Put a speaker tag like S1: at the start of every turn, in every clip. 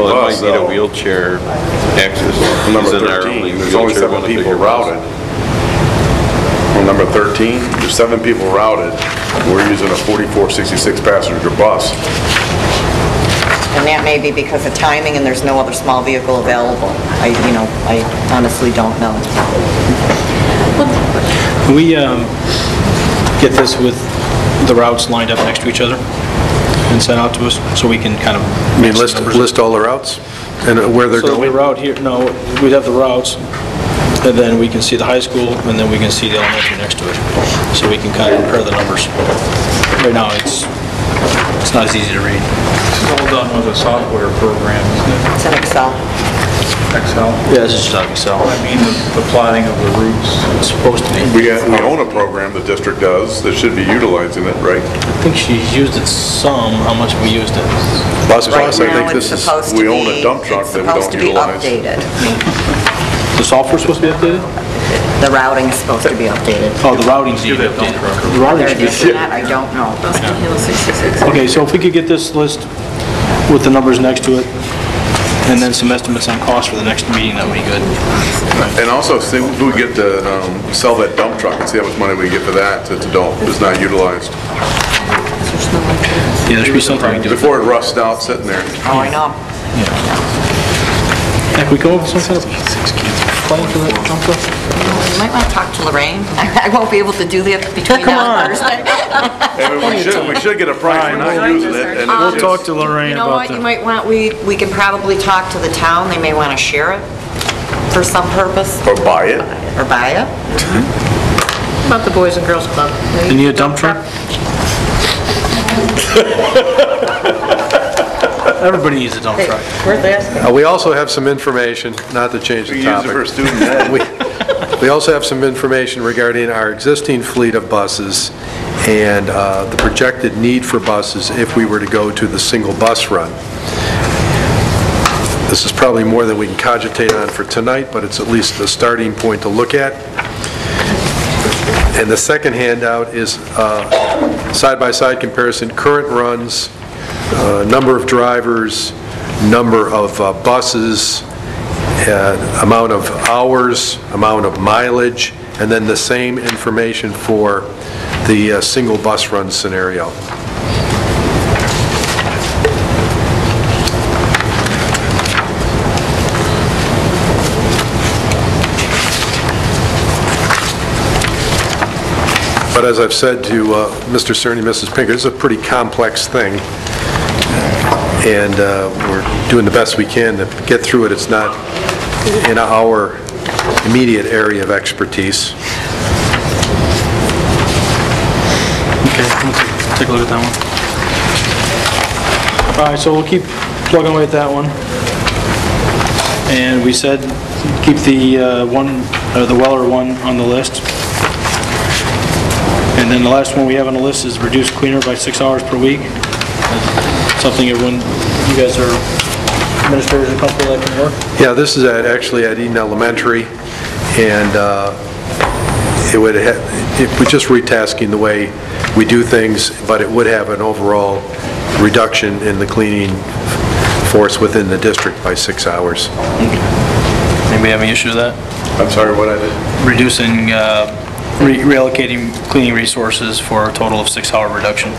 S1: Well,
S2: Well,
S1: it might need a
S2: so-
S1: wheelchair access.
S2: Number
S1: He's in our
S2: 13,
S1: only
S2: there's only
S1: wheelchair one to
S2: seven people
S1: figure out.
S2: routed. On number 13, there's seven people routed. We're using a 4466 passenger bus.
S3: And that may be because of timing and there's no other small vehicle available. I, you know, I honestly don't know.
S4: Can we um, get this with the routes lined up next to each other and sent out to us so we can kind of...
S5: I mean, list, list all the routes and uh, where they're
S4: So the
S5: going?
S4: route here, no, we'd have the routes, and then we can see the high school, and then we can see the elementary next to it, so we can kind of compare the numbers. Right now, it's, it's not as easy to read.
S6: This is all done with a software program, isn't
S3: It's in Excel.
S6: it? Excel?
S4: Yeah, this is just out of Excel.
S6: I mean, the- the plotting of the routes.
S4: It's supposed to be.
S2: We uh, we own a program, the district does, that should be utilizing it, right?
S4: I think she's used it some, how much we used it.
S5: Buses,
S3: Right
S5: I
S3: now,
S5: think
S3: it's
S5: this is,
S3: supposed to
S2: we
S3: be...
S2: own a dump truck that we don't utilize.
S3: It's supposed to be updated.
S4: The software's supposed to be updated?
S3: The routing is supposed to be updated.
S4: Oh, the routing's need to be
S6: Give that dump truck
S4: updated. The routing
S3: Whether it is or
S4: should be
S3: not, I don't know.
S4: Okay, so if we could get this list with the numbers next to it, and then some estimates on cost for the next meeting, that would be good.
S2: And also, see, if we get to um, sell that dump truck and see how much money we get for that, that's don't, is not utilized.
S4: Yeah, there should be something we can do.
S2: Before it rusts out sitting there.
S3: Oh, I know.
S4: Heck, we go over some kind of plan for that dump truck?
S3: You might want to talk to Lorraine. I won't be able to do that between now and Thursday.
S2: I mean, we should, we should get a price for not using it. and it's
S3: We'll
S2: just-
S4: to Lorraine
S3: You know what, you might want, we, we can probably talk to the town, they may want to share it for some purpose,
S2: Or buy it.
S3: or buy it.
S7: About the Boys and Girls Club.
S4: You need a dump truck? Everybody needs a dump truck.
S7: Worth asking.
S5: Uh, we also have some information, not to change
S2: We
S5: the
S2: use it for
S5: topic.
S2: student ed.
S5: We- We also have some information regarding our existing fleet of buses and uh, the projected need for buses if we were to go to the single bus run. This is probably more than we can cogitate on for tonight, but it's at least a starting point to look at. And the second handout is uh, side-by-side comparison, current runs, uh, number of drivers, number of uh, buses, uh, amount of hours, amount of mileage, and then the same information for the uh, single bus run scenario. But as I've said to uh, Mr. Cerny, Mrs. Pinker, this is a pretty complex thing, and uh, we're doing the best we can to get through it. It's not in our immediate area of expertise.
S4: Okay, let's take a look at that one. All right, so we'll keep plugging away at that one. And we said, keep the uh, one, uh, the Weller one on the list. And then the last one we have on the list is reduce cleaner by six hours per week. Something everyone, you guys are administrators and comfortable that can work?
S5: Yeah, this is at, actually at Eden Elementary, and uh, it would, ha- it would just retasking the way we do things, but it would have an overall reduction in the cleaning force within the district by six hours.
S4: Anybody have any issue with that?
S2: I'm sorry, what I did?
S4: Reducing, uh, re- reallocating cleaning resources for a total of six-hour reduction.
S7: You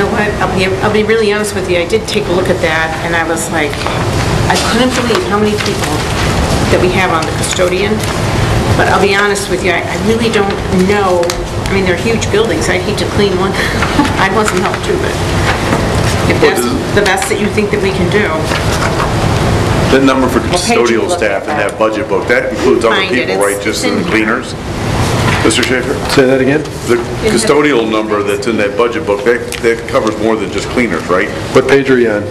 S7: know what, I'll be, I'll be really honest with you, I did take a look at that, and I was like, I couldn't believe how many people that we have on the custodian, but I'll be honest with you, I I really don't know, I mean, they're huge buildings, I'd hate to clean one, I'd want some help too, but if that's the best that you think that we can do,
S2: The number for
S3: page you
S2: custodial
S3: look
S2: staff in
S3: at that?
S2: that budget book, that includes other
S7: Find it,
S2: people,
S7: it's-
S2: right, just
S7: it's in
S2: the
S7: here.
S2: cleaners? Mr. Schaefer?
S5: Say that again?
S2: The custodial number that's in that budget book, that, that covers more than just cleaners, right?
S5: What page are you on?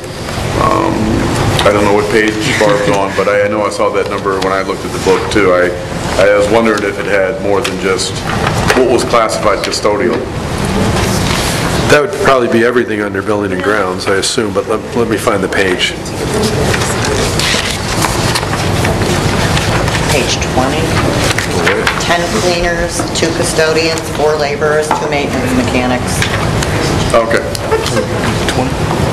S2: I don't know what page Barb's on, but I I know I saw that number when I looked at the book too. I, I was wondering if it had more than just, what was classified custodial?
S5: That would probably be everything under building and grounds, I assume, but let let me find the page.
S3: Page 20, 10 cleaners, 2 custodians, 4 laborers, 2 maintenance mechanics.
S2: Okay.
S8: 20?